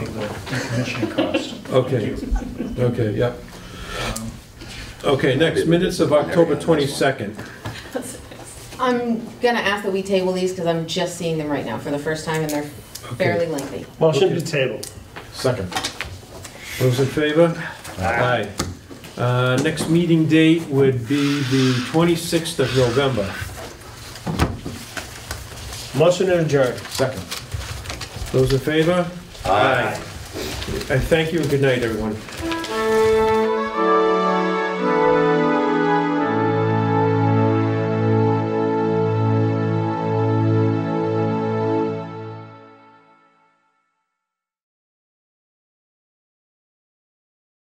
decommissioning cost. Okay, okay, yep. Okay, next, minutes of October 22nd. I'm gonna ask that we table these because I'm just seeing them right now for the first time and they're fairly lengthy. Motion to table. Second. Those in favor? Aye. Uh, Next meeting date would be the 26th of November. Motion to adjourn. Second. Those in favor? Aye. I thank you and good night, everyone.